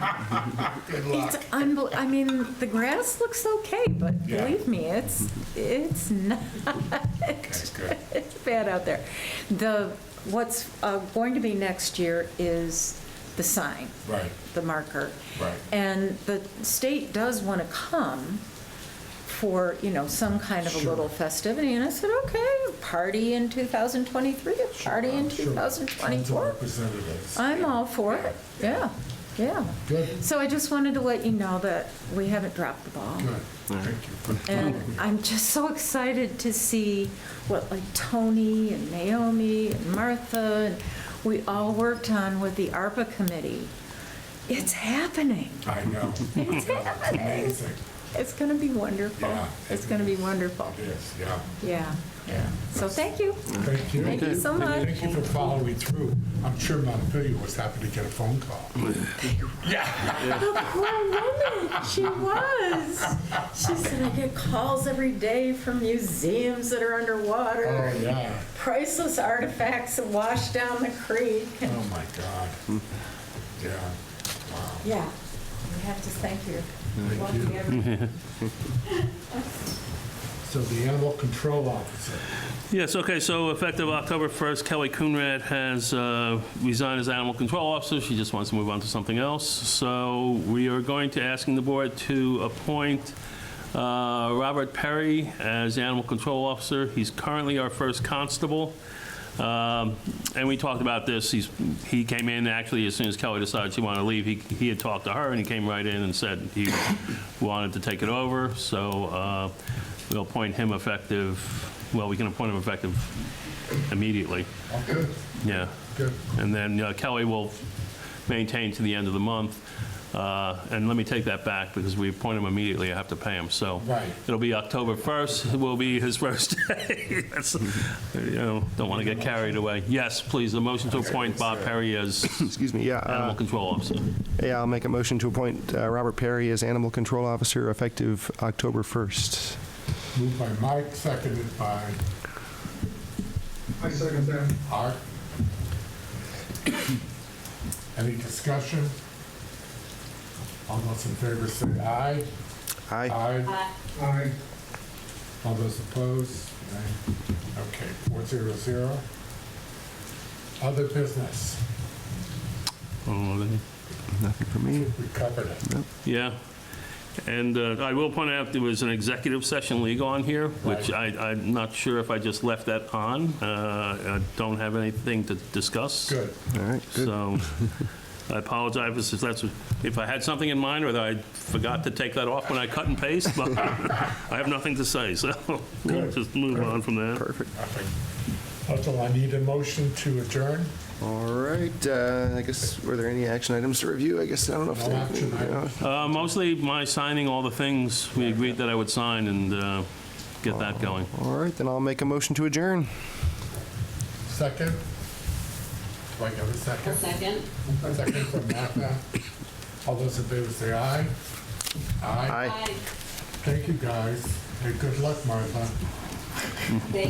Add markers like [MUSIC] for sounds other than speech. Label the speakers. Speaker 1: Good
Speaker 2: It's
Speaker 1: luck.
Speaker 2: unbel, I mean, the grass looks okay, but
Speaker 1: Yeah.
Speaker 2: believe me, it's, it's [LAUGHS] not,
Speaker 1: That's good.
Speaker 2: it's bad out there. The, what's uh, going to be next year is the sign,
Speaker 1: Right,
Speaker 2: the marker.
Speaker 1: Right.
Speaker 2: And the state does want to come for, you know, some kind of a
Speaker 1: Sure.
Speaker 2: little festivity, and I said, okay, party in 2023, a party in
Speaker 1: Sure. Tons of
Speaker 2: 2024.
Speaker 1: Representatives.
Speaker 2: I'm all for it, yeah, yeah.
Speaker 1: Good.
Speaker 2: So I just wanted to let you know that we haven't dropped the ball.
Speaker 1: Good, thank you.
Speaker 2: Oh. And I'm just so excited to see what like Tony and Naomi and Martha and we all worked on with the ARPA committee. It's happening.
Speaker 1: [LAUGHS]
Speaker 2: [LAUGHS]
Speaker 1: I know.
Speaker 2: It's happening.
Speaker 1: Amazing.
Speaker 2: It's going to be wonderful.
Speaker 1: Yeah.
Speaker 2: It's going to be wonderful.
Speaker 1: It is, yeah,
Speaker 2: Yeah.
Speaker 1: yeah.
Speaker 2: So thank you.
Speaker 1: Thank you.
Speaker 2: Thank you so much.
Speaker 1: Thank you for following through. I'm sure Montpelier was happy to get a phone call.
Speaker 2: The poor woman, she was. She said, I get calls every day from museums that are underwater.
Speaker 1: Oh, yeah.
Speaker 2: priceless artifacts that wash down the creek.
Speaker 1: Oh, my God. Yeah.
Speaker 2: Yeah, we have to thank you.
Speaker 1: Thank you.
Speaker 2: Lucky everyone.
Speaker 1: So the animal control officer.
Speaker 3: Yes, okay, so effective October 1st, Kelly Coonrad has uh, resigned as animal control officer. She just wants to move on to something else. So we are going to asking the board to appoint uh, Robert Perry as animal control officer. He's currently our first constable. Um, And we talked about this, he's, he came in, actually, as soon as Kelly decided she wanted to leave, he, he had talked to her, and he came right in and said he wanted to take it over, so uh, we'll appoint him effective, well, we can appoint him effective immediately,
Speaker 1: Oh, good,
Speaker 3: yeah.
Speaker 1: good.
Speaker 3: And then uh, Kelly will maintain to the end of the month, Uh, and let me take that back, because we appoint him immediately, I have to pay him, so.
Speaker 1: Right.
Speaker 3: It'll be October 1st, will be his [LAUGHS] first day. That's- You know, don't want to get carried away. Yes, please, the motion to appoint Bob Perry as
Speaker 4: Excuse me, yeah.
Speaker 3: animal
Speaker 4: uh,
Speaker 3: control officer.
Speaker 4: Yeah, I'll make a motion to appoint uh, Robert Perry as Animal Control Officer effective October 1st.
Speaker 1: Moved by Mike, seconded by
Speaker 5: I second that.
Speaker 1: Art. Any discussion? All those in favor say aye.
Speaker 4: Aye.
Speaker 1: Aye.
Speaker 5: Aye.
Speaker 1: All those opposed? Nay. Okay, four zero zero. Other business,
Speaker 4: Nothing for me.
Speaker 1: we covered it.
Speaker 3: Yeah. And uh, I will point out, there was an executive session legal on here, which I, I'm not sure if I just left that on. Uh, I don't have anything to discuss.
Speaker 1: Good.
Speaker 4: All right, good.
Speaker 3: So I apologize if that's, if I had something in mind or that I forgot to take that off when I cut and paste, but I have nothing to say, so we'll
Speaker 1: Good.
Speaker 3: just move on from that.
Speaker 4: Perfect.
Speaker 1: Nothing. Also, I need a motion to adjourn.
Speaker 4: All right, uh, I guess, were there any action items to review? I guess, I don't know if.
Speaker 1: No
Speaker 4: there-
Speaker 1: action items.
Speaker 3: Uh, Mostly my signing all the things we agreed that I would sign and uh, get that going.
Speaker 4: All right, then I'll make a motion to adjourn.
Speaker 1: Second? Do I have a
Speaker 6: A
Speaker 1: second?
Speaker 6: second.
Speaker 1: A second from Martha. All those in favor say aye. Aye.
Speaker 6: Aye.
Speaker 1: Thank you, guys, and good luck, Martha.